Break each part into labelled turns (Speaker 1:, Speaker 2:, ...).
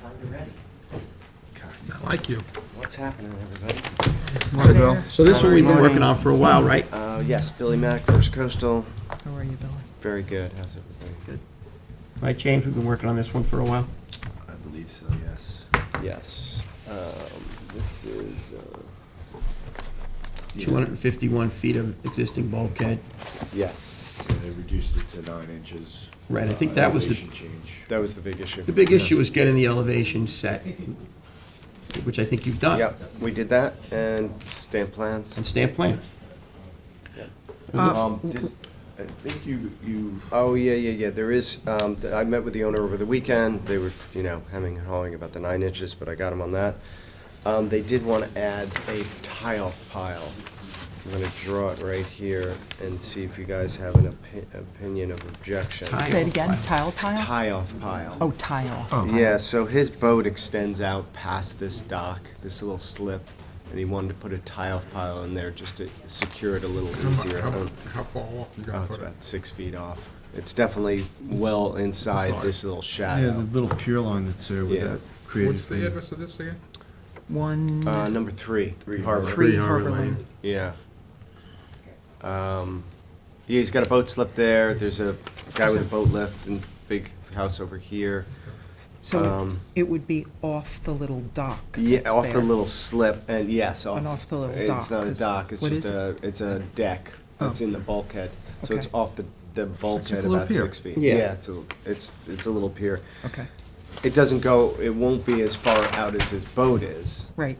Speaker 1: time you're ready.
Speaker 2: I like you.
Speaker 1: What's happening, everybody?
Speaker 2: Hi, Bill. So this one we've been
Speaker 1: Morning.
Speaker 2: working on for a while, right?
Speaker 1: Uh, yes, Billy Mack, First Coastal,
Speaker 3: How are you, Billy?
Speaker 1: very good, how's everybody? Good.
Speaker 2: Right, James, we've been working on this one for a while.
Speaker 4: I believe so, yes.
Speaker 1: Yes, um, this is, uh,
Speaker 2: 251 feet of existing bulkhead.
Speaker 1: yes,
Speaker 4: Yeah, They reduced it to nine inches.
Speaker 2: Right, I think
Speaker 4: Uh,
Speaker 2: that was the-
Speaker 4: elevation Change.
Speaker 1: that was the big issue.
Speaker 2: The big issue is getting the elevation set, which I think you've done.
Speaker 1: Yep, we did that, and stamp plans.
Speaker 2: And stamp plans.
Speaker 4: Um, did- I think you, you,
Speaker 1: Oh, yeah, yeah, yeah, there is, um, th- I met with the owner over the weekend, they were, you know, hemming and hawing about the nine inches, but I got them on that. Um, they did wanna add a tile pile. I'm gonna draw it right here and see if you guys have an opi- opinion of objection.
Speaker 2: Tile.
Speaker 3: Say it again, tile pile?
Speaker 1: Tie-off pile.
Speaker 3: Oh, tie off.
Speaker 1: Yeah, so his boat extends out past this dock, this little slip, and he wanted to put a tile pile in there just to secure it a little
Speaker 5: How mu-
Speaker 1: easier. I
Speaker 5: How
Speaker 1: don't-
Speaker 5: how far off
Speaker 1: Oh,
Speaker 5: you gonna
Speaker 1: it's
Speaker 5: put it?
Speaker 1: about six feet off. It's definitely well inside
Speaker 5: Inside.
Speaker 1: this little
Speaker 4: yeah, the
Speaker 1: shadow.
Speaker 4: little pier line that's there with
Speaker 1: Yeah.
Speaker 4: that
Speaker 5: What's
Speaker 4: creative
Speaker 5: the
Speaker 4: thing.
Speaker 5: address of this again?
Speaker 3: One,
Speaker 1: Uh, number three, Harbor.
Speaker 3: three
Speaker 5: Three Harbor
Speaker 3: Harbor Lane.
Speaker 5: Lane.
Speaker 1: Yeah. Um, yeah, he's got a boat slip there. There's a guy with a boat lift and big house over here.
Speaker 3: So it-
Speaker 1: Um,
Speaker 3: it would be off the little dock
Speaker 1: Yeah,
Speaker 3: that's
Speaker 1: off the
Speaker 3: there.
Speaker 1: little slip and yes, off.
Speaker 3: And off the little dock,
Speaker 1: It's not a
Speaker 3: 'cause
Speaker 1: dock, it's
Speaker 3: what
Speaker 1: just
Speaker 3: is
Speaker 1: a, it's a deck. It's
Speaker 3: Oh.
Speaker 1: in the bulkhead. So it's
Speaker 3: Okay.
Speaker 1: off the, the bulkhead
Speaker 4: little
Speaker 1: about
Speaker 4: pier.
Speaker 1: six feet.
Speaker 2: Yeah.
Speaker 1: Yeah, it's a, it's, it's a little pier.
Speaker 3: Okay,
Speaker 1: It doesn't go, it won't be as far out as his boat is,
Speaker 3: right.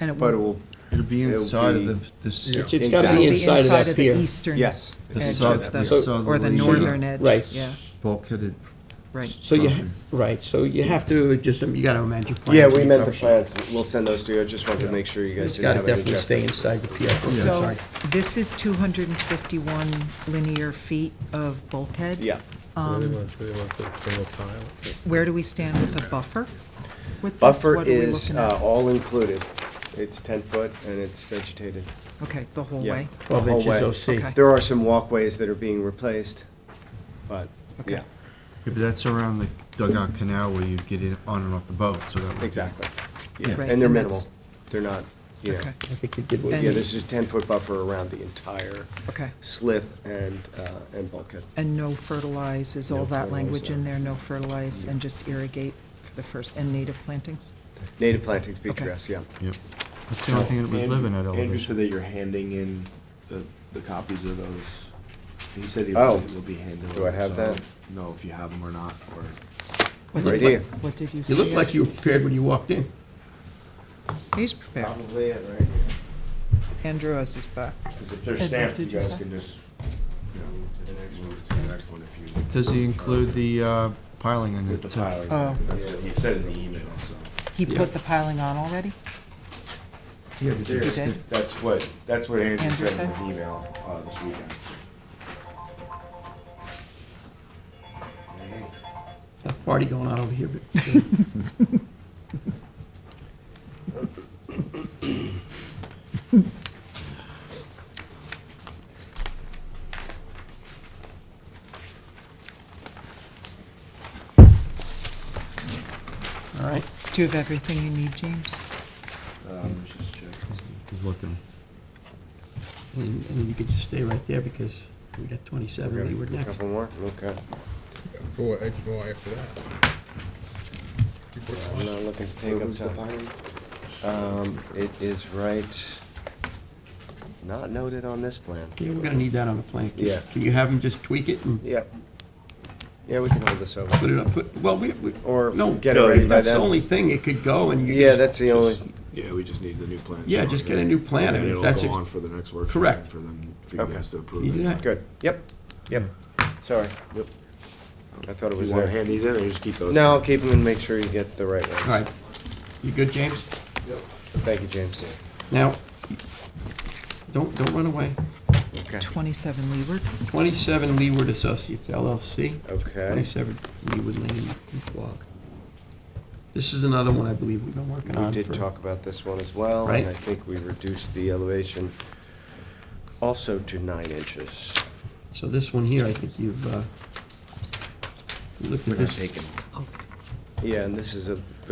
Speaker 3: And it
Speaker 1: but it
Speaker 3: will
Speaker 1: will,
Speaker 4: It'll be
Speaker 1: It'll
Speaker 4: inside of
Speaker 1: be-
Speaker 4: the, this.
Speaker 5: Yeah.
Speaker 2: It's it's gotta
Speaker 3: it'll
Speaker 2: be
Speaker 3: be
Speaker 2: inside of that pier.
Speaker 3: the eastern
Speaker 1: yes.
Speaker 4: The
Speaker 3: edge
Speaker 4: south-
Speaker 3: of the,
Speaker 4: the southern
Speaker 3: or the
Speaker 4: edge.
Speaker 3: northern edge.
Speaker 2: Right.
Speaker 3: Yeah,
Speaker 4: Bulkheaded.
Speaker 3: right.
Speaker 2: So you, ha- right, so you have to just, you gotta amend your Mm. plans.
Speaker 1: Yeah, we meant the
Speaker 2: Cover sheet.
Speaker 1: plans, we'll send those to you, I just wanted to make sure you guys
Speaker 2: It's
Speaker 1: didn't
Speaker 2: gotta
Speaker 1: have any
Speaker 2: definitely stay
Speaker 1: objection.
Speaker 2: inside the pier.
Speaker 3: So
Speaker 2: Sorry.
Speaker 3: this is 251 linear feet of bulkhead?
Speaker 1: Yeah.
Speaker 3: Where do we stand with the buffer? With this?
Speaker 1: Buffer
Speaker 3: What are we
Speaker 1: is,
Speaker 3: looking at?
Speaker 1: uh, all included, it's ten foot and it's vegetated,
Speaker 3: Okay, the whole
Speaker 1: yeah.
Speaker 3: way?
Speaker 2: Twelve
Speaker 1: The whole way.
Speaker 2: inches
Speaker 3: Okay.
Speaker 2: OC.
Speaker 1: There are some walkways that are being replaced, but, yeah,
Speaker 4: Yeah, but that's around the dugout canal where you get in, on and off the boat, so that. would be-
Speaker 1: exactly.
Speaker 4: Yeah.
Speaker 1: Yeah,
Speaker 3: Right,
Speaker 1: and they're
Speaker 3: and
Speaker 1: minimal,
Speaker 3: that's-
Speaker 1: they're not, you know,
Speaker 3: Okay,
Speaker 2: I think you did what
Speaker 3: And-
Speaker 1: yeah, this is a ten-foot buffer around the entire
Speaker 3: okay.
Speaker 1: slip and, uh, and bulkhead.
Speaker 3: And no fertilize, is all
Speaker 1: No
Speaker 3: that
Speaker 1: fertilize,
Speaker 3: language in
Speaker 1: no.
Speaker 3: there, no fertilize, and just irrigate for the first, and native plantings?
Speaker 1: Native plantings, be
Speaker 3: Okay.
Speaker 1: grass, yeah.
Speaker 4: Yep. That's the only thing that was
Speaker 6: Andrew-
Speaker 4: living at
Speaker 6: Andrew
Speaker 4: elevation.
Speaker 6: said that you're handing in the, the copies of those. He said he
Speaker 1: Oh.
Speaker 6: will be handed.
Speaker 1: Do I have that?
Speaker 6: No, if you have them or not, or.
Speaker 3: What
Speaker 1: Right
Speaker 3: did- what-
Speaker 1: here.
Speaker 3: What did you say?
Speaker 2: You looked like you were prepared when you walked in.
Speaker 3: He's prepared.
Speaker 1: it right here.
Speaker 3: Andrew has his back.
Speaker 6: Because if they're
Speaker 3: And what
Speaker 6: stamped, you
Speaker 3: did you
Speaker 6: guys
Speaker 3: say?
Speaker 6: can just, you know, move to the next- move to the next one if you.
Speaker 4: Does he include the uh, piling in
Speaker 6: With
Speaker 4: it?
Speaker 6: the
Speaker 4: too?
Speaker 6: piling,
Speaker 3: Oh.
Speaker 6: that's what he said in the email, so.
Speaker 3: He
Speaker 2: Yeah.
Speaker 3: put the piling on already?
Speaker 4: Yeah, but
Speaker 3: You
Speaker 4: it's-
Speaker 3: did?
Speaker 6: That's what, that's what
Speaker 3: Andrew
Speaker 6: Andrew said in
Speaker 3: said?
Speaker 6: his email, uh, this weekend.
Speaker 2: A party going on over here, but. All right,
Speaker 3: Do you have everything you need, James?
Speaker 6: Um, let's just check.
Speaker 4: he's looking.
Speaker 2: and and you could just stay right there because we got
Speaker 1: We
Speaker 2: 27
Speaker 1: got a
Speaker 2: leeward next.
Speaker 1: Couple more, okay.
Speaker 5: Four, eight more after that.
Speaker 1: I'm not looking to take up time. Um, it is right, not noted on this plan.
Speaker 2: Yeah, we're gonna need that on the plan. Can-
Speaker 1: Yeah.
Speaker 2: Can you have him just tweak it and
Speaker 1: Yep. Yeah, we can hold this
Speaker 2: put
Speaker 1: over.
Speaker 2: it up, put- well, we, we.
Speaker 1: Or
Speaker 2: no,
Speaker 1: get it
Speaker 6: no,
Speaker 1: ready
Speaker 2: If
Speaker 1: by
Speaker 2: that's the only
Speaker 1: then.
Speaker 2: thing, it could go and you.
Speaker 1: Yeah,
Speaker 2: just-
Speaker 1: that's the only,
Speaker 6: Just- Yeah, we just need the new plan.
Speaker 2: Yeah,
Speaker 6: so
Speaker 2: just
Speaker 6: that-
Speaker 2: get a new plan, I mean, if
Speaker 6: And
Speaker 2: that's
Speaker 6: it'll
Speaker 2: ex-
Speaker 6: go on for the next workshop.
Speaker 2: Correct.
Speaker 6: For them, for you
Speaker 1: Okay.
Speaker 6: guys to
Speaker 2: You
Speaker 6: approve
Speaker 2: do
Speaker 6: it.
Speaker 2: that.
Speaker 1: good, yep,
Speaker 2: Yep.
Speaker 1: sorry. Yep. I thought it was
Speaker 6: You wanna
Speaker 1: there.
Speaker 6: hand these in or just keep those?
Speaker 1: No, I'll keep them and make sure you get the right ones.
Speaker 2: All right. You good, James?
Speaker 1: Thank you, James.
Speaker 2: Now, don't, don't run away.
Speaker 1: Okay.
Speaker 3: 27 leeward?
Speaker 2: 27 Leeward Associates LLC.
Speaker 1: Okay.
Speaker 2: 27 Leeward Lane, Quogue. This is another one I believe we've been working
Speaker 1: We
Speaker 2: on
Speaker 1: did
Speaker 2: for.
Speaker 1: talk about this one as well,
Speaker 2: Right.
Speaker 1: and I think we reduced the elevation also to nine inches.
Speaker 2: So this one here, I think you've uh, looked at this.
Speaker 3: Oh.
Speaker 1: Yeah, and this is a